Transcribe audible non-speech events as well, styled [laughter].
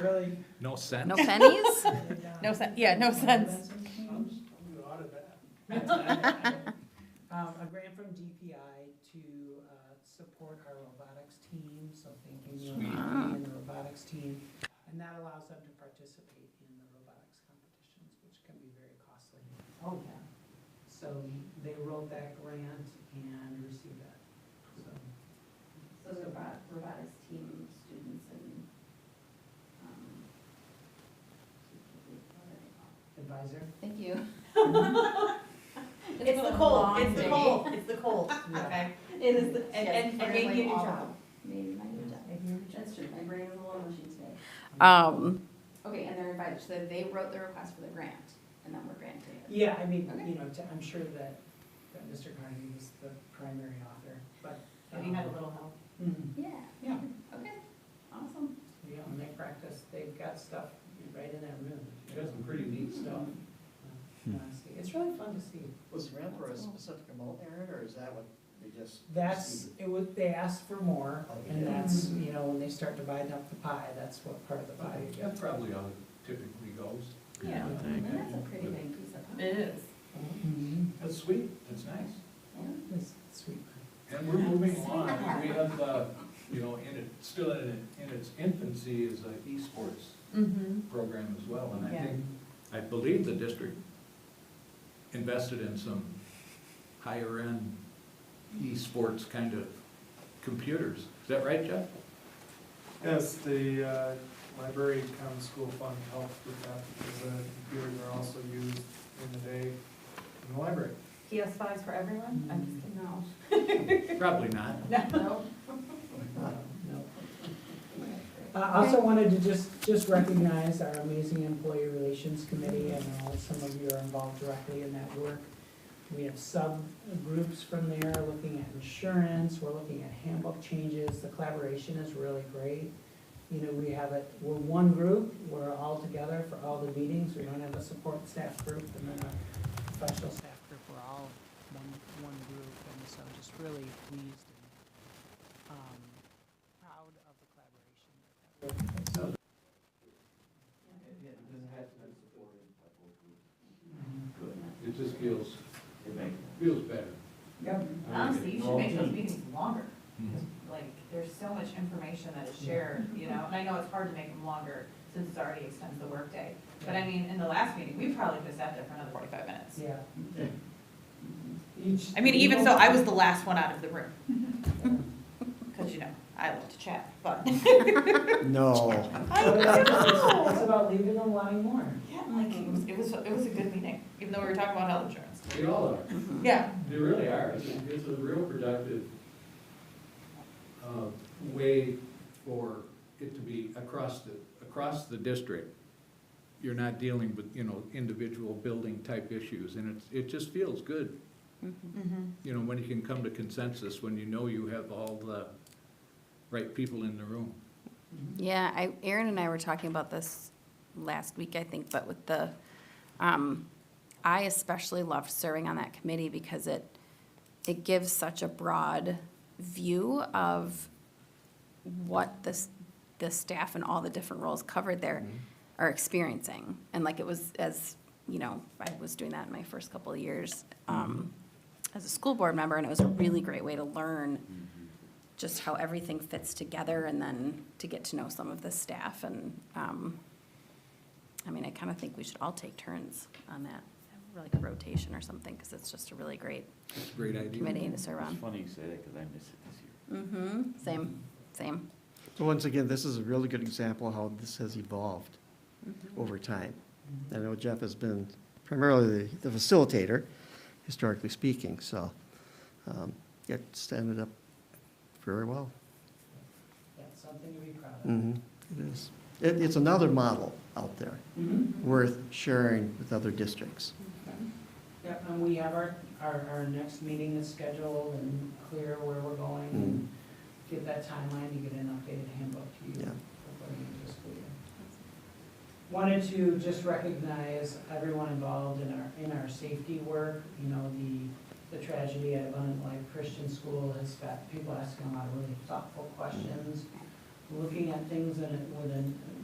really. No sense. No pennies? No sen- yeah, no sense. [laughs] Um, a grant from DPI to, uh, support our robotics team, so thank you, Sweet. Ah. Neil, and the robotics team. And that allows them to participate in the robotics competitions, which can be very costly. Oh, yeah. So they wrote that grant and received that, so. So the robot, robotics team, students and, um, [laughs] Advisor? [laughs] Thank you. It's the cold, it's [laughs] the cold, it's the cold, Yeah. okay? It is the. And- and- and maybe you do job. Maybe my new job. That's true, my brain was a little machine today. Um, Okay, and they're invited, so they wrote the request for the grant, and then we're granting it. Yeah, I mean, Okay. you know, t- I'm sure that, that Mr. Carnegie was the primary author, but. Have you had a little help? Mhm. Yeah. Yeah. Okay, awesome. Yeah, and they practice, they've got stuff right in that room. She does some pretty neat stuff. Uh, honestly, It's really fun to see. Was ramp for a specific amount there, or is that what they just? That's, it was, they asked for more, and Yeah. that's, you know, when they start dividing up the pie, that's what part of the pie you That get. probably how it typically goes. Yeah. And that's a pretty big piece of. It is. Mhm. That's sweet, that's nice. Yeah. It's sweet. And we're moving along, we have, uh, you know, in it, still in, it- in its infancy is a esports Mm-hmm. program as well, and I Yeah. think, I believe the district invested in some higher-end esports kind of computers. Is that right, Jeff? Yes, the uh, library common school fund helped with that because the computers are also used in the day in the library. PS fives for everyone? I'm just kidding. [laughs] No. Probably not. [laughs] No. No. I Uh, also wanted to just, just recognize our amazing employee relations committee, and know some of you are involved directly in that work. We have subgroups from there looking at insurance, we're looking at handbook changes, the collaboration is really great. You know, we have it, we're one group, we're all together for all the meetings, we don't have a support staff group and then a professional staff group, we're all one, one group, and so just really pleased and, um, proud of the collaboration that that work has. It just feels, feels better. Yep. Honestly, you should make those meetings longer. Mhm. Like, there's so much information that is shared, you know, and I know it's hard to make them longer since it's already extends the workday. But I mean, in the last meeting, we probably just sat there for another forty-five minutes. Yeah. Each- I mean, even so, I [laughs] was the last one out of the room. Cause you know, I love to chat, but. [laughs] No. I It's about leaving them wanting more. Yeah, like, it was, it was, it was a good meeting, even though we were talking about health insurance. They all are. Yeah. They really are. It's a- It's a real productive uh, way for it to be across the, across the district. You're not dealing with, you know, individual building type issues and it's, it just feels good, Mm-hmm. you know, when you can come to consensus, when you know you have all the right people in the room. yeah, I, Aaron and I were talking about this last week, I think, but with the, um, I especially loved serving on that committee because it, it gives such a broad view of what this, the staff and all the different roles covered there are experiencing. And like it was as, you know, I was doing that in my first couple of years, um, as a school board member, and it was a really great way to learn Mm-hmm. just how everything fits together and then to get to know some of the staff and, um, I mean, I kind of think we should all take turns on that, like a rotation or something, because it's just a really great It's a great idea. committee to serve on. Funny you say that, because I missed it this year. Mm-hmm, same, same. So once again, this is a really good example of how this has evolved over time. I know Jeff has been primarily the the facilitator, historically speaking, so um, it's ended up very well. That's something to be proud of. Mhm, It is. It, it's another model out there worth sharing with other districts. Yep, and we have our, our, our next meeting is scheduled and clear where we're going and give that timeline to get an updated handbook to you. Yeah. for going into the school year. Wanted to just recognize everyone involved in our, in our safety work, you know, the, the tragedy at Abundant Life Christian School has got people asking a lot of really thoughtful questions, looking at things in, a- with an,